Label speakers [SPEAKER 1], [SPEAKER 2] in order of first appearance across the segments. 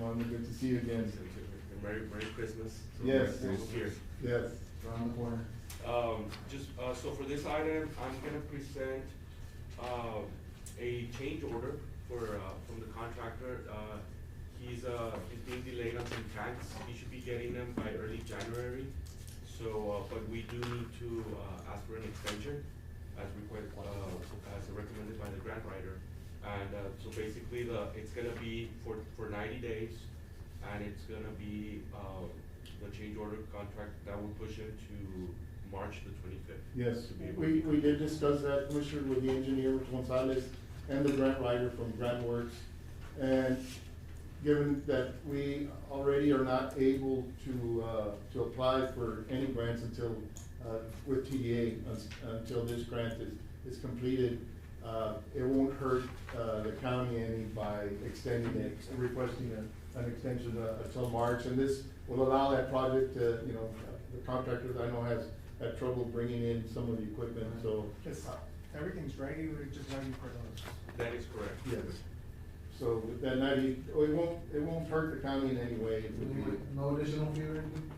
[SPEAKER 1] Wanda, good to see you again.
[SPEAKER 2] And Merry, Merry Christmas. So
[SPEAKER 1] Yes.
[SPEAKER 2] we're almost here.
[SPEAKER 1] Yes, around the corner.
[SPEAKER 2] Um, just, uh, so for this item, I'm gonna present, um, a change order for, uh, from the contractor. Uh, he's, uh, he's being delayed on some tanks. He should be getting them by early January. So, uh, but we do need to, uh, ask for an extension as required, uh, as recommended by the grant writer. And, uh, so basically the, it's gonna be for, for ninety days. And it's gonna be, um, the change order contract, that will push it to March the twenty-fifth.
[SPEAKER 1] Yes, we, we did discuss that, Commissioner, with the engineer Gonzalez and the grant writer from Grant Works. And given that we already are not able to, uh, to apply for any grants until, uh, with TDA, un- until this grant is, is completed, uh, it won't hurt, uh, the county any by extending it, requesting a, an extension uh, until March. And this will allow that project to, you know, the contractor I know has had trouble bringing in some of the equipment, so.
[SPEAKER 3] Just, everything's ready, we're just waiting for those.
[SPEAKER 2] That is correct.
[SPEAKER 1] Yes. So with that ninety, oh, it won't, it won't hurt the county in any way. It would be-
[SPEAKER 4] No additional fee or anything?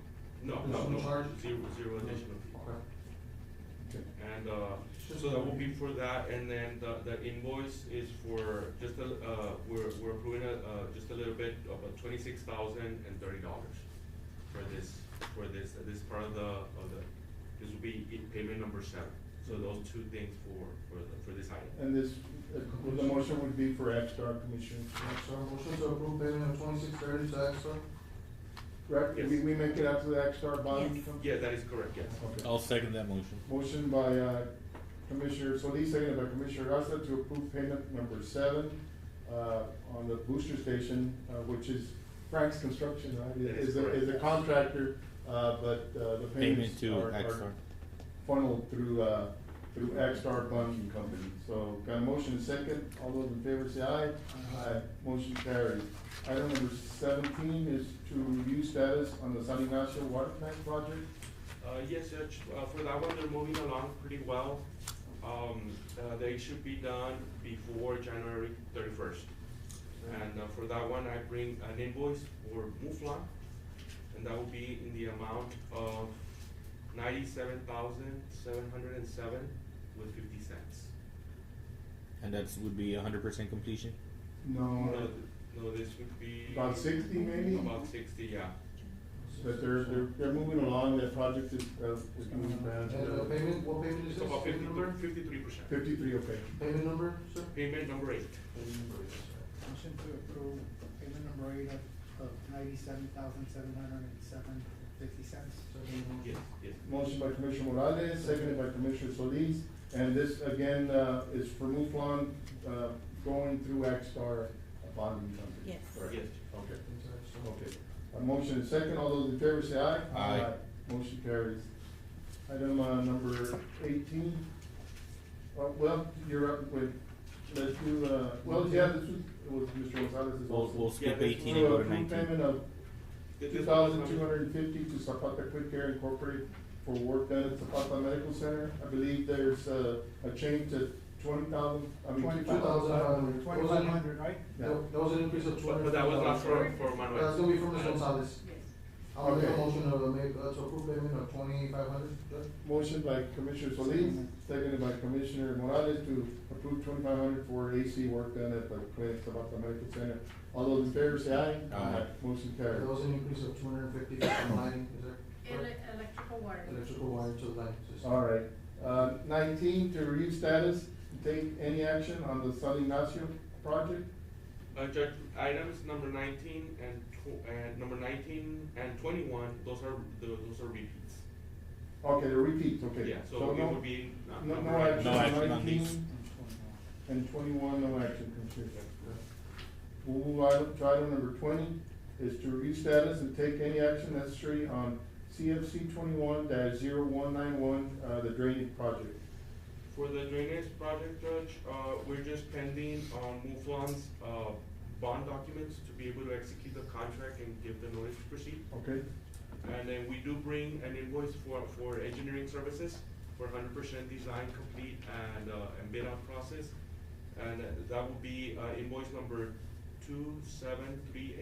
[SPEAKER 2] No, no, no,
[SPEAKER 4] Additional charge?
[SPEAKER 2] zero, zero additional fee.
[SPEAKER 4] Okay.
[SPEAKER 1] Okay.
[SPEAKER 2] And, uh, so that will be for that, and then the, the invoice is for just a, uh, we're, we're approving a, uh, just a little bit, about twenty-six thousand and thirty dollars for this, for this, this part of the, of the, this will be in payment number seven. So those two things for, for, the- for this item.
[SPEAKER 1] And this, uh, the motion would be for Axstar Commission.
[SPEAKER 4] Yes, sir. Motion to approve payment of twenty-six thirty to Exxon.
[SPEAKER 1] Right, we,
[SPEAKER 2] Yes.
[SPEAKER 1] we make it out to the Axstar bond? company?
[SPEAKER 2] Yeah, that is correct, yes.
[SPEAKER 1] Okay.
[SPEAKER 5] I'll second that motion.
[SPEAKER 1] Motion by, uh, Commissioner Solis, seconded by Commissioner Garza to approve payment number seven, uh, on the booster station, uh, which is Frank's Construction, right?
[SPEAKER 2] That is
[SPEAKER 1] Is a, is a
[SPEAKER 2] correct.
[SPEAKER 1] contractor, uh, but, uh, the
[SPEAKER 5] Payment
[SPEAKER 1] payments
[SPEAKER 5] to
[SPEAKER 1] are, are
[SPEAKER 5] Axstar.
[SPEAKER 1] funneled through, uh, through Axstar Bunking Company. So got a motion and second, all those in favor say aye. Aye. Motion carries. Item number seventeen is to review status on the San Ignacio Water Plant Project.
[SPEAKER 2] Uh, yes, Judge, uh, for that one, they're moving along pretty well. Um, uh, they should be done before January thirty-first. And, uh, for that one, I bring an invoice for Muflon, and that will be in the amount of ninety-seven thousand, seven hundred and seven with fifty cents.
[SPEAKER 5] And that would be hundred percent completion?
[SPEAKER 2] No, no, this would be.
[SPEAKER 1] Uh, About 60 maybe?
[SPEAKER 2] About sixty, yeah.
[SPEAKER 1] But they're, they're, they're moving along, that project is, uh, is moving
[SPEAKER 4] And
[SPEAKER 1] fast.
[SPEAKER 4] the payment, what payment
[SPEAKER 2] It's
[SPEAKER 4] is this?
[SPEAKER 2] about
[SPEAKER 4] Payment
[SPEAKER 2] fifty-three,
[SPEAKER 4] number?
[SPEAKER 2] fifty-three percent.
[SPEAKER 1] Fifty-three, okay.
[SPEAKER 4] Payment number, sir?
[SPEAKER 2] Payment number eight.
[SPEAKER 4] Payment number, yes, sir.
[SPEAKER 3] Motion to approve payment number eight of, of ninety-seven thousand, seven hundred and seven fifty cents.
[SPEAKER 4] Second.
[SPEAKER 2] Yes, yes.
[SPEAKER 1] Motion by Commissioner Morales, seconded by Commissioner Solis, and this again, uh, is for Muflon, uh, going through Axstar Bonding Company.
[SPEAKER 6] Yes.
[SPEAKER 1] correct?
[SPEAKER 2] Yes.
[SPEAKER 1] Okay.
[SPEAKER 4] It's Exxon.
[SPEAKER 1] Okay, a motion is second, all those in favor say aye.
[SPEAKER 5] Aye.
[SPEAKER 1] Motion carries. Item, uh, number eighteen, uh, well, you're up with, let's do, uh, well, yeah, this was, it was Mr. Gonzalez's
[SPEAKER 5] We'll,
[SPEAKER 1] also.
[SPEAKER 5] we'll skip
[SPEAKER 2] Yeah,
[SPEAKER 5] eighteen and
[SPEAKER 1] To
[SPEAKER 5] go to
[SPEAKER 1] approve Payment
[SPEAKER 5] nineteen.
[SPEAKER 1] of
[SPEAKER 2] This-
[SPEAKER 1] two
[SPEAKER 2] this one is
[SPEAKER 1] thousand two
[SPEAKER 2] coming-
[SPEAKER 1] hundred and fifty to Zapata Quick Care Incorporated for work done at Zapata Medical Center. I believe there's a, a change to twenty thousand, I mean, two thousand.
[SPEAKER 4] 22,500.
[SPEAKER 3] Twenty-five hundred, right?
[SPEAKER 4] That that was an increase of
[SPEAKER 2] But
[SPEAKER 4] twenty.
[SPEAKER 2] but that was not for, for Manuel.
[SPEAKER 4] That's gonna be from Ms. Gonzalez. I'll make a
[SPEAKER 1] Okay.
[SPEAKER 4] motion to make, uh, to approve payment of twenty-five hundred, Judge.
[SPEAKER 1] Motion by Commissioner Solis, seconded by Commissioner Morales to approve twenty-five hundred for AC work done at the clinic about the medical center. All those in favor say aye.
[SPEAKER 5] Aye.
[SPEAKER 1] Motion
[SPEAKER 4] That
[SPEAKER 1] carries.
[SPEAKER 4] was an increase of two hundred and fifty from lighting, is that
[SPEAKER 6] Ele-
[SPEAKER 4] correct?
[SPEAKER 6] electrical wire.
[SPEAKER 4] Electrical wire to light system.
[SPEAKER 1] All right, uh, nineteen, to review status, take any action on the San Ignacio project?
[SPEAKER 2] Uh, Judge, items number nineteen and tw- and number nineteen and twenty-one, those are, tho- those are repeats.
[SPEAKER 1] Okay, the repeat, okay.
[SPEAKER 2] Yeah, so it
[SPEAKER 1] no-
[SPEAKER 2] would be. not-
[SPEAKER 1] No,
[SPEAKER 2] number
[SPEAKER 1] no action,
[SPEAKER 5] No action on
[SPEAKER 1] nineteen
[SPEAKER 5] these.
[SPEAKER 1] and twenty-one, no action, Commissioner. We'll move item, to item number twenty, is to review status and take any action necessary on CFC twenty-one dash zero one nine one, uh, the drainage project.
[SPEAKER 2] For the drainage project, Judge, uh, we're just pending on Muflon's, uh, bond documents to be able to execute the contract and give the notice to proceed.
[SPEAKER 1] Okay,
[SPEAKER 2] And then we do bring an invoice for, for engineering services for hundred percent design complete and, uh, and bid out process. And uh, that would be, uh, invoice number two seven three